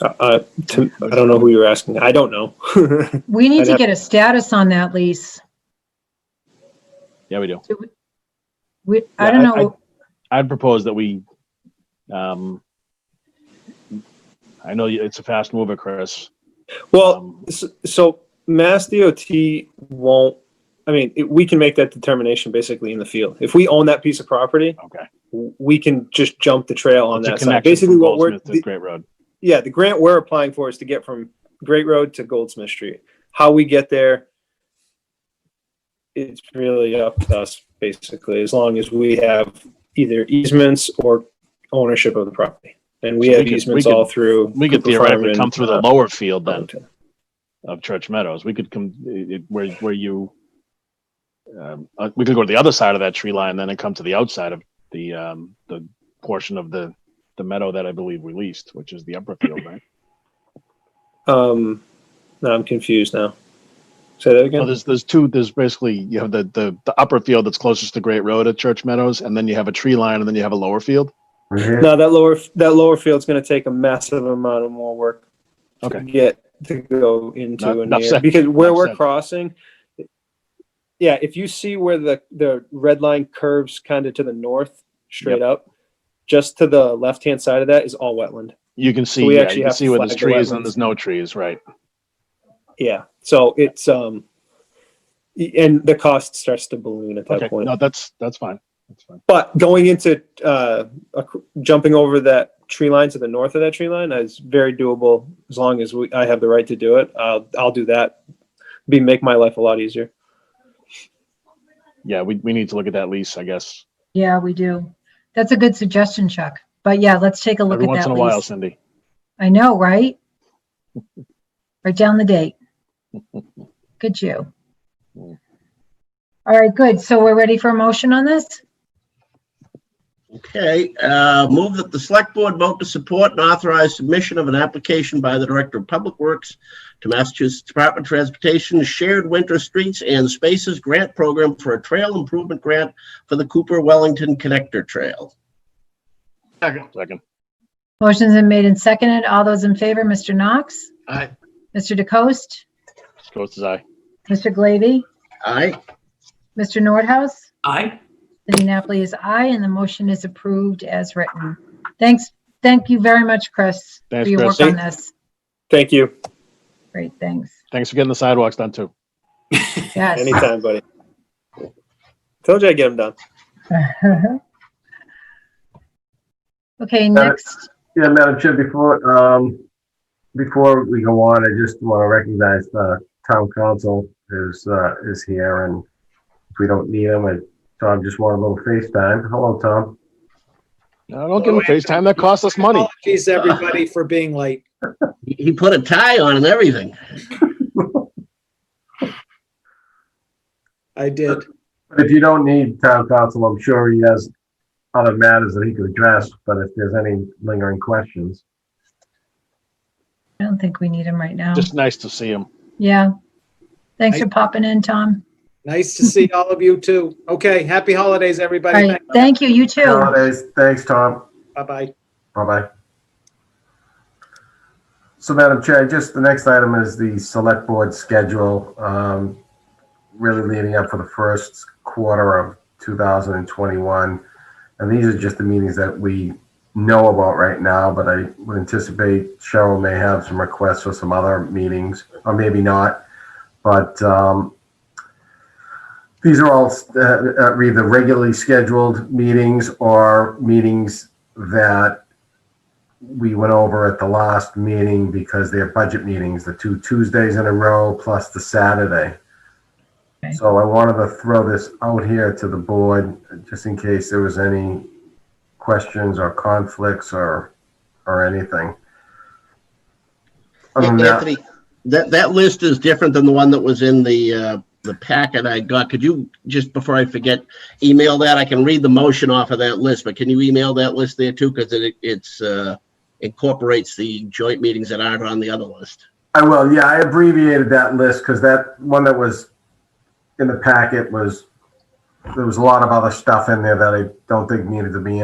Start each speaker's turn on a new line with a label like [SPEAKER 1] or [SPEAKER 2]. [SPEAKER 1] Uh, uh, to, I don't know who you're asking. I don't know.
[SPEAKER 2] We need
[SPEAKER 1] I'd
[SPEAKER 2] to
[SPEAKER 1] have-
[SPEAKER 2] get a status on that lease.
[SPEAKER 3] Yeah, we do.
[SPEAKER 2] We, I
[SPEAKER 3] Yeah,
[SPEAKER 2] don't
[SPEAKER 3] I-
[SPEAKER 2] know,
[SPEAKER 3] I'd propose that we, um, I know you- it's a fast mover, Chris.
[SPEAKER 1] well,
[SPEAKER 3] Um,
[SPEAKER 1] s- so Mass DOT won't. I mean, it, we can make that determination basically in the field. If we own that piece of property,
[SPEAKER 3] Okay.
[SPEAKER 1] w- we can just jump the trail on
[SPEAKER 3] It's a
[SPEAKER 1] that side.
[SPEAKER 3] connection
[SPEAKER 1] Basically,
[SPEAKER 3] from
[SPEAKER 1] what we're
[SPEAKER 3] Goldsmith to
[SPEAKER 1] the-
[SPEAKER 3] Great Road.
[SPEAKER 1] yeah, the grant we're applying for is to get from Great Road to Goldsmith Street. How we get there, it's really up to us, basically, as long as we have either easements or ownership of the property. And we
[SPEAKER 3] So we
[SPEAKER 1] have
[SPEAKER 3] could- we
[SPEAKER 1] easements
[SPEAKER 3] could-
[SPEAKER 1] all through.
[SPEAKER 3] We could
[SPEAKER 1] Cooper Farm
[SPEAKER 3] theoretically
[SPEAKER 1] and,
[SPEAKER 3] come through the
[SPEAKER 1] uh,
[SPEAKER 3] lower field then
[SPEAKER 1] Arlington.
[SPEAKER 3] of Church Meadows. We could come, it- it- where, where you, um, uh, we could go to the other side of that tree line then and come to the outside of the, um, the portion of the, the meadow that I believe we leased, which is the upper field, right?
[SPEAKER 1] Um, no, I'm confused now. Say that
[SPEAKER 3] Well,
[SPEAKER 1] again?
[SPEAKER 3] there's there's two. There's basically you have the, the the upper field that's closest to Great Road at Church Meadows, and then you have a tree line, and then you have a lower field.
[SPEAKER 1] No, that lower, that lower field's gonna take a massive amount of more work to
[SPEAKER 3] Okay.
[SPEAKER 1] get to go into
[SPEAKER 3] Not-
[SPEAKER 1] and
[SPEAKER 3] not
[SPEAKER 1] near,
[SPEAKER 3] said.
[SPEAKER 1] because where
[SPEAKER 3] Not
[SPEAKER 1] we're
[SPEAKER 3] said.
[SPEAKER 1] crossing. Yeah, if you see where the, the red line curves kind of to the north, straight up, just to the left-hand side of that is all wetland.
[SPEAKER 3] You can see
[SPEAKER 1] we
[SPEAKER 3] yeah,
[SPEAKER 1] actually
[SPEAKER 3] you can
[SPEAKER 1] have
[SPEAKER 3] see where there's
[SPEAKER 1] flagged
[SPEAKER 3] trees and
[SPEAKER 1] wetlands.
[SPEAKER 3] there's no trees, right?
[SPEAKER 1] Yeah, so it's, um, y- and the cost starts to balloon at
[SPEAKER 3] Okay,
[SPEAKER 1] that point.
[SPEAKER 3] no, that's that's fine. That's fine.
[SPEAKER 1] But going into uh, ac- jumping over that tree line to the north of that tree line is very doable as long as we, I have the right to do it. I'll, I'll do that. Be make my life a lot easier.
[SPEAKER 3] Yeah, we, we need to look at that lease, I guess,
[SPEAKER 2] yeah, we do. That's a good suggestion, Chuck. But yeah, let's take a look
[SPEAKER 3] every
[SPEAKER 2] at
[SPEAKER 3] once in
[SPEAKER 2] that
[SPEAKER 3] a while,
[SPEAKER 2] lease.
[SPEAKER 3] Cindy.
[SPEAKER 2] I know, right? Write down the date. Good you.
[SPEAKER 3] Yeah.
[SPEAKER 2] All right, good. So we're ready for a motion on this?
[SPEAKER 4] Okay, uh, move that the select board vote to support and authorize submission of an application by the Director of Public Works to Massachusetts Department of Transportation Shared Winter Streets and Spaces Grant Program for a trail improvement grant for the Cooper Wellington Connector Trail.
[SPEAKER 3] Second,
[SPEAKER 2] Motion's been made and seconded. All those in favor, Mr. Knox,
[SPEAKER 4] Aye.
[SPEAKER 2] Mr. DeCoste,
[SPEAKER 3] close his eye.
[SPEAKER 2] Mr. Glavy,
[SPEAKER 4] Aye.
[SPEAKER 2] Mr. Nordhaus?
[SPEAKER 5] Aye.
[SPEAKER 2] Cindy Napoli is aye, and the motion is approved as written. Thanks, thank you very much, Chris, for
[SPEAKER 3] Thanks,
[SPEAKER 2] your work
[SPEAKER 3] Chris.
[SPEAKER 2] on this.
[SPEAKER 1] Thank you.
[SPEAKER 2] Great, thanks.
[SPEAKER 3] Thanks for getting the sidewalks done too.
[SPEAKER 2] Yes.
[SPEAKER 1] Anytime, buddy. Told you I'd get them done.
[SPEAKER 2] Okay, next,
[SPEAKER 6] Yeah, Madam Chair, before, um, before we go on, I just want to recognize the town council is, uh, is here and if we don't need him, I, Tom just wanted a little FaceTime. Hello, Tom.
[SPEAKER 3] No, don't give him FaceTime. That costs us money.
[SPEAKER 1] oh.
[SPEAKER 7] Apologies, everybody, for being late.
[SPEAKER 4] He he put a tie on and everything.
[SPEAKER 7] I did.
[SPEAKER 6] But if you don't need town council, I'm sure he has other matters that he could address, but if there's any lingering questions.
[SPEAKER 2] I don't think we need him right now.
[SPEAKER 3] Just nice to see him.
[SPEAKER 2] Yeah. Thanks for popping in, Tom.
[SPEAKER 7] Nice to see all of you too. Okay, happy holidays,
[SPEAKER 2] All
[SPEAKER 7] everybody.
[SPEAKER 2] right, thank you, you too.
[SPEAKER 6] Holidays, thanks, Tom.
[SPEAKER 7] Bye-bye.
[SPEAKER 6] Bye-bye. So Madam Chair, just the next item is the select board schedule, um, really leading up for the first quarter of 2021. And these are just the meetings that we know about right now, but I would anticipate Cheryl may have some requests for some other meetings, or maybe not. But, um, these are all, uh, uh, either regularly scheduled meetings or meetings that we went over at the last meeting because they're budget meetings, the two Tuesdays in a row plus the Saturday.
[SPEAKER 2] Okay.
[SPEAKER 6] So I wanted to throw this out here to the board, just in case there was any questions or conflicts or, or anything. Other than that-
[SPEAKER 4] Anthony, that, that list is different than the one that was in the, uh, the packet I got. Could you, just before I forget, email that? I can read the motion off of that list, but can you email that list there too? Because it, it's, uh, incorporates the joint meetings that aren't on the other list.
[SPEAKER 6] I will, yeah, I abbreviated that list because that one that was in the packet was, there was a lot of other stuff in there that I don't think needed to be in.